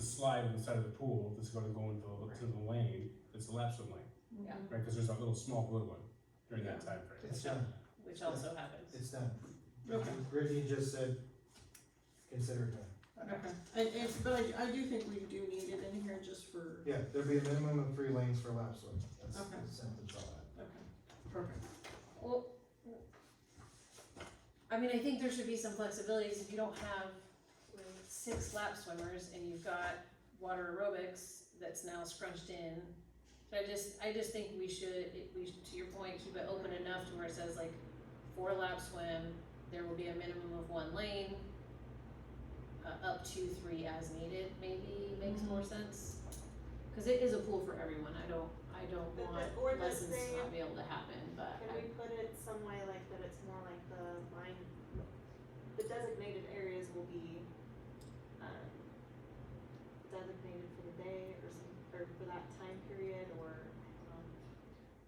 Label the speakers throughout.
Speaker 1: slide on the side of the pool that's gonna go into, the- to the lane, it's the lapsing lane,
Speaker 2: Yeah.
Speaker 1: right, cause there's a little small blue one during that time frame.
Speaker 3: It's done,
Speaker 2: which also happens.
Speaker 3: it's done.
Speaker 4: Okay.
Speaker 3: Brittany just said, consider it done.
Speaker 4: Okay, and, and, but I, I do think we do need it in here just for,
Speaker 3: Yeah, there'd be a minimum of three lanes for lap swim. That's
Speaker 4: Okay.
Speaker 3: the sentence on that.
Speaker 4: okay, perfect.
Speaker 2: Well, I mean, I think there should be some flexibilities if you don't have like, six lap swimmers and you've got water aerobics that's now scrunched in. So I just, I just think we should, it- we, should- to your point, keep it open enough to where it says like four lap swim, there will be a minimum of one lane. Uh, up to three as needed, maybe makes more
Speaker 5: Mm-hmm.
Speaker 2: sense. Cause it is a pool for everyone, I don't, I don't
Speaker 5: But the
Speaker 2: want
Speaker 5: ordinance
Speaker 2: lessons to
Speaker 5: thing-
Speaker 2: not be able to happen, but
Speaker 5: Can
Speaker 2: I-
Speaker 5: we put it some way like that it's more like the line, the designated areas will be, um, designated for the day or some, or for that time period or, um,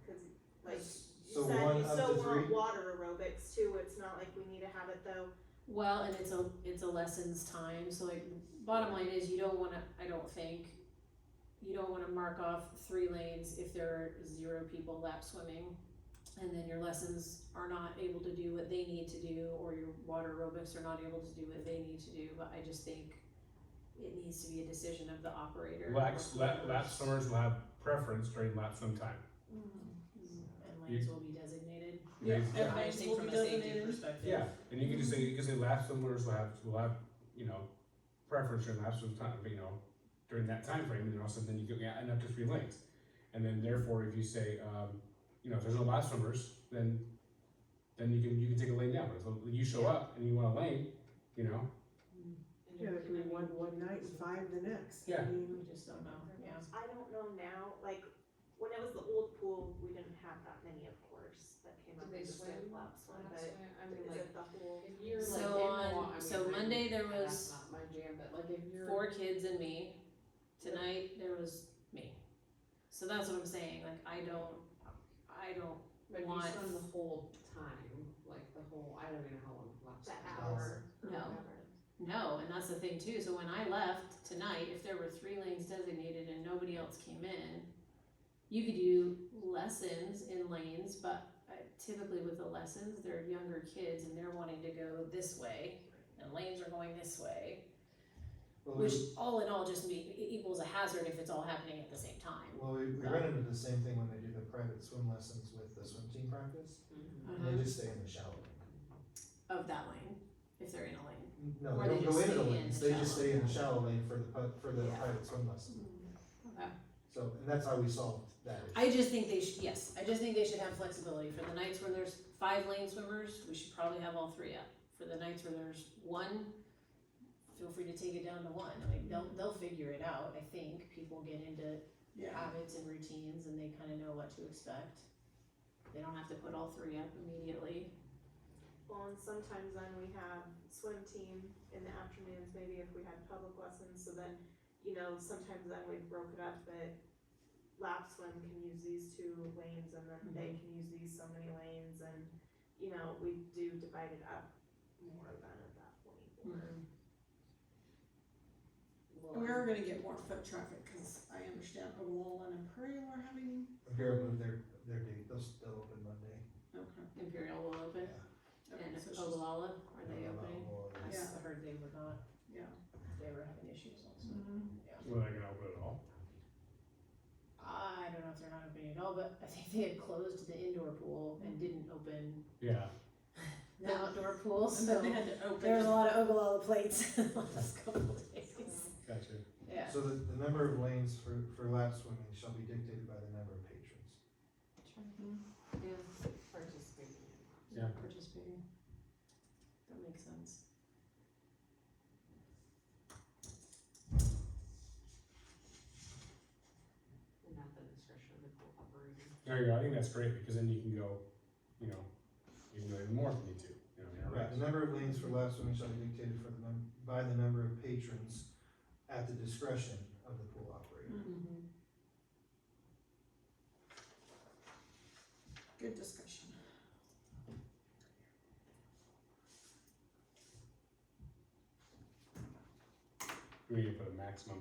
Speaker 5: cause like
Speaker 3: So
Speaker 5: you said,
Speaker 3: one
Speaker 5: you
Speaker 3: up
Speaker 5: still
Speaker 3: to
Speaker 5: want
Speaker 3: three?
Speaker 5: water aerobics too, it's not like we need to have it though,
Speaker 2: Well, and it's a it's a lessons time. So like bottom line is you don't want to. I don't think you don't want to mark off three lanes if there are zero people lap swimming, and then your lessons are not able to do what they need to do, or your water aerobics are not able to do what they need to do. But I just think it needs to be a decision of the operator.
Speaker 1: Laps, lap, lap swimmers will have preference during lap swim time.
Speaker 2: And lanes will be designated.
Speaker 1: Yeah.
Speaker 4: And
Speaker 6: I
Speaker 4: lanes
Speaker 6: just
Speaker 4: will
Speaker 6: think from
Speaker 4: be
Speaker 6: a safety
Speaker 4: designated.
Speaker 6: perspective.
Speaker 1: And you can just say, you can say lap swimmers will have, will have, you know, preference during lap swim time, you know, during that time frame, and then also then you go, yeah, and up to three lanes. And then therefore, if you say, um, you know, if there's no lap swimmers, then, then you can, you can take a lane down, but if you show up and you want a lane, you know,
Speaker 4: Yeah, there could be one, one night and five the next. I
Speaker 1: Yeah.
Speaker 4: mean,
Speaker 2: We just don't know. Yeah.
Speaker 5: I don't know now, like, when it was the old pool, we didn't have that many, of course, that came up.
Speaker 7: Do they
Speaker 5: with the
Speaker 7: swim?
Speaker 5: Laps one, but
Speaker 7: That's why, I
Speaker 5: is
Speaker 7: mean, like,
Speaker 5: it the whole?
Speaker 7: if you're like.
Speaker 2: So
Speaker 7: in
Speaker 2: on-
Speaker 7: wa- I mean,
Speaker 2: so
Speaker 7: I'm-
Speaker 2: Monday there was
Speaker 7: That's not my jam, but like if you're.
Speaker 2: four kids and me. Tonight there was me. So that's what I'm saying. Like I don't, I don't.
Speaker 7: But if you
Speaker 2: want-
Speaker 7: swim the whole time, like the whole, I don't even know how long it lasts.
Speaker 5: The hour or
Speaker 2: No.
Speaker 5: whatever.
Speaker 2: No, and that's the thing too. So when I left tonight, if there were three lanes designated and nobody else came in, you could do lessons in lanes, but uh, typically with the lessons, they're younger kids and they're wanting to go this way, and lanes are going this way,
Speaker 3: Well,
Speaker 2: which
Speaker 3: we,
Speaker 2: all in all just be, it equals a hazard if it's all happening at the same time.
Speaker 3: well, we, we run into the same thing when they do the private swim lessons with the swim team practice.
Speaker 2: Uh-huh.
Speaker 3: They just stay in the shallow end.
Speaker 2: Of that lane, if they're in a lane.
Speaker 3: No,
Speaker 2: Or
Speaker 3: they
Speaker 2: they
Speaker 3: don't
Speaker 2: just stay
Speaker 3: go into the
Speaker 2: in
Speaker 3: lanes,
Speaker 2: the
Speaker 3: they just
Speaker 2: shallow.
Speaker 3: stay in the shallow lane for the, pu- for the
Speaker 2: Yeah.
Speaker 3: private swim lesson.
Speaker 2: Okay.
Speaker 3: So, and that's how we solved that issue.
Speaker 2: I just think they should, yes, I just think they should have flexibility. For the nights where there's five lane swimmers, we should probably have all three up. For the nights where there's one, feel free to take it down to one. Like, they'll,
Speaker 4: Mm-hmm.
Speaker 2: they'll figure it out, I think. People get into habits and routines and they kind of know what to expect. They don't have to put all three up immediately.
Speaker 5: Well, and sometimes then we have swim team in the afternoons, maybe if we had public lessons, so then, you know, sometimes then we broke it up that lap swim can use these two lanes and then they can use these so many lanes and, you know, we do divide it up more than at that point. or-
Speaker 4: and we are gonna get more foot traffic, cause I understand Olin and Imperial are having,
Speaker 3: Imperial moved their, their date, they'll, they'll open Monday.
Speaker 4: okay.
Speaker 2: Imperial will open
Speaker 4: okay,
Speaker 2: and
Speaker 4: so it's just-
Speaker 2: Ogallala, are they opening? I
Speaker 3: opening?
Speaker 2: s- heard they were not.
Speaker 4: Yeah.
Speaker 2: They were having issues also.
Speaker 4: Mhm.
Speaker 1: we're not gonna open it all.
Speaker 2: I don't know if they're not opening at all, but I think they had closed the indoor pool and didn't open
Speaker 1: Yeah,
Speaker 2: the outdoor pool,
Speaker 4: And then
Speaker 2: so
Speaker 4: they had to open.
Speaker 2: there was a lot of Ogallala plates in the last couple of days.
Speaker 1: gotcha.
Speaker 2: Yeah.
Speaker 3: So the, the number of lanes for, for lap swimming shall be dictated by the number of patrons.
Speaker 7: Participating in.
Speaker 1: Yeah.
Speaker 2: Participating. That makes sense.
Speaker 7: And not the discretion of the pool operator.
Speaker 1: There you go, I think that's great, because then you can go, you know, you can go even more if you need to, you know, you're
Speaker 3: Right, the number of lanes for lap swimming shall be dictated for the num, by the number of patrons at the discretion of the pool operator.
Speaker 2: Mm-hmm.
Speaker 4: Good discussion.
Speaker 1: We need to put a maximum